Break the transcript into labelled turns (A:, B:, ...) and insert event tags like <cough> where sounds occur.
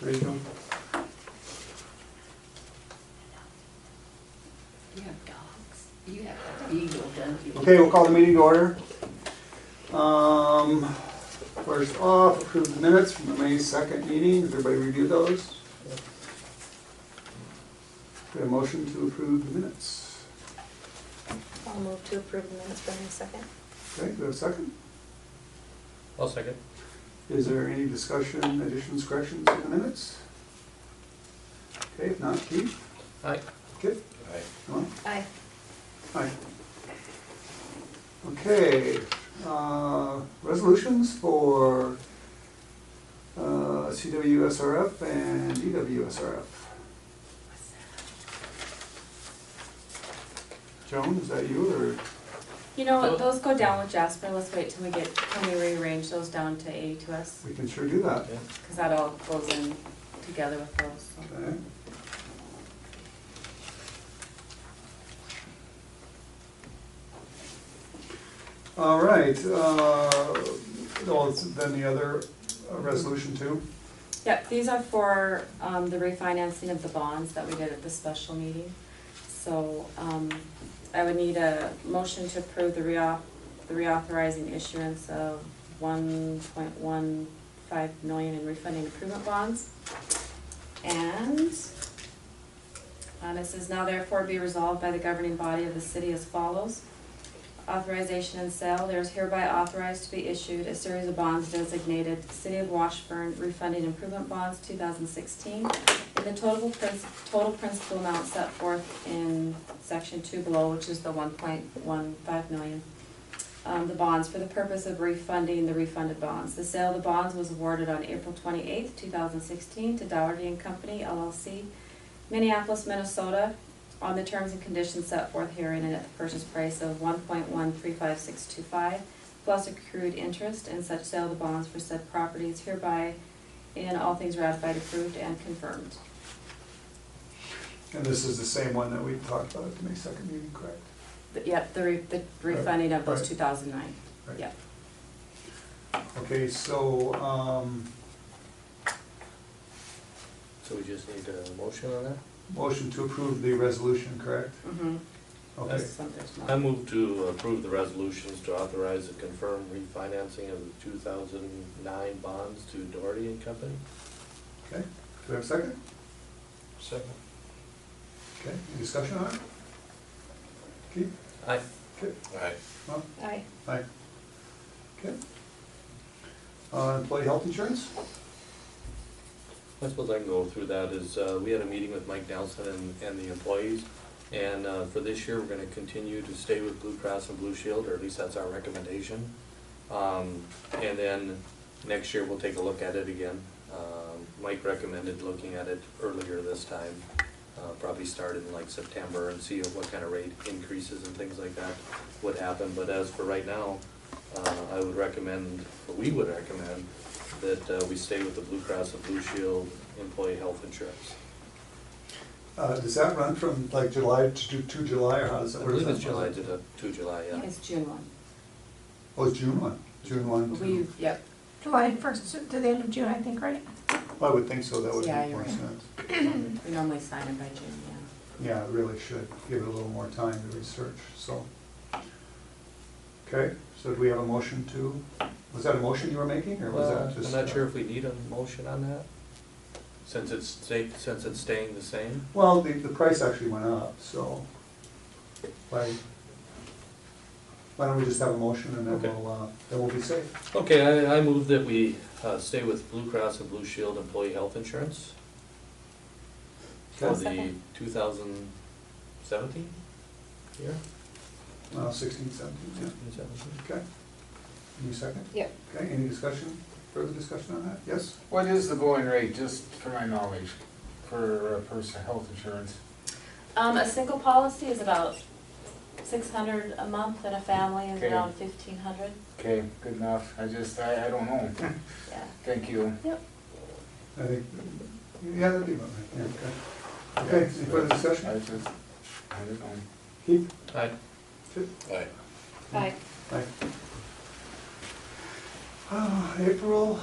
A: There you go.
B: You have dogs. You have a beagle, don't you?
A: Okay, we'll call the meeting to order. Um, First off, approve the minutes from the May 2nd meeting. Has everybody reviewed those? Get a motion to approve the minutes.
C: I'll move to approve the minutes for May second.
A: Okay, do we have a second?
D: I'll second.
A: Is there any discussion, additions, corrections in the minutes? Okay, if not, Keith?
D: Aye.
A: Kip?
D: Aye.
A: Norm?
C: Aye.
A: Aye. Okay, uh, resolutions for uh, CWSRF and E EWSRF. Joan, is that you or?
E: You know, what, those go down with Jasper, let's wait till we get, till we rearrange those down to A to us,
A: We can sure do that.
E: because that all goes in together with those, so.
A: Okay. All right, uh, well, it's then the other uh, resolution too.
E: Yep, these are for, um, the refinancing of the bonds that we did at the special meeting. So, um, I would need a motion to approve the reauth, the reauthorizing issuance of one point one five million in refunding improvement bonds. And, uh, this is now therefore be resolved by the governing body of the city as follows. Authorization and sale, there is hereby authorized to be issued a series of bonds designated City of Washburn Refunding Improvement Bonds two thousand sixteen in the total prin- total principal amount set forth in section two below, which is the one point one five million. Um, the bonds for the purpose of refunding the refunded bonds. The sale of the bonds was awarded on April twenty-eighth, two thousand sixteen to Dougherty and Company LLC, Minneapolis, Minnesota, on the terms and conditions set forth herein and at the purchase price of one point one three five six two five, plus accrued interest and such sale of the bonds for said properties hereby in all things ratified, approved, and confirmed.
A: And this is the same one that we talked about at the May second meeting, correct?
E: But Yep, the re- the refunding of those two thousand nine.
A: Right.
E: Yep.
A: Okay, so, um,
D: So we just need a motion on that?
A: motion to approve the resolution, correct?
E: Mm-hmm.
A: Okay,
D: I
A: Um,
D: move to approve the resolutions to authorize the confirmed refinancing of the two thousand nine bonds to Doherty and Company.
A: okay. Do we have a second?
D: Second.
A: Okay, any discussion on it? Keith?
D: Aye.
A: Okay.
D: Aye.
A: Well,
C: Aye.
A: Aye. Okay. Uh, Employee health insurance?
D: I suppose I can go through that is, uh, we had a meeting with Mike Nelson and, and the employees. And, uh, for this year, we're gonna continue to stay with Blue Cross and Blue Shield, or at least that's our recommendation. Um, and then next year, we'll take a look at it again. Um, Mike recommended looking at it earlier this time, uh, probably start in like September and see what kind of rate increases and things like that would happen. But as for right now, uh, I would recommend, or we would recommend, that uh, we stay with the Blue Cross and Blue Shield employee health insurance.
A: Uh, Does that run from like July to to- to July, or how does
D: I
A: that? where does
D: believe it's
A: that
D: July
A: run?
D: to, to July, yeah.
E: It's June one.
A: Oh, it's June one, June one. to-
E: We, yep,
F: July first to the end of June, I think, right?
A: I would think so, that would
E: Yeah,
A: make
E: you're
A: more
E: right.
A: sense.
E: we normally sign it by June, yeah.
A: Yeah, it really should, give it a little more time to research, so. Okay, so do we have a motion to, was that a motion you were making, or was
D: Uh,
A: that
D: I'm
A: just?
D: not sure
A: uh,
D: if we need a motion on that, since it's stay, since it's staying the same.
A: Well, the, the price actually went up, so. Why, why don't we just have a motion and then
D: Okay.
A: we'll, uh, then we'll be safe?
D: Okay, I, I move that we uh, stay with Blue Cross and Blue Shield employee health insurance for
A: Okay.
E: I'll
D: the
E: second.
D: two thousand seventeen year,
A: Uh, sixteen, seventeen, yeah.
D: sixteen seventeen.
A: Okay. Any second?
C: Yep.
A: Okay, any discussion, further discussion on that? Yes?
G: What is the going rate, just for my knowledge, for a person, health insurance?
E: Um, a single policy is about six hundred a month and a family is
G: Okay.
E: around fifteen hundred,
G: Okay, good enough, I just, I, I don't know.
A: <laughs>
E: yeah.
G: Thank you.
A: I think, yeah, that'd be about right, yeah, okay. Okay, any further
G: I
A: discussion?
G: just, I don't know.
A: Keith?
D: Aye.
A: Chip?
D: Aye.
C: Aye.
A: Aye. Uh, April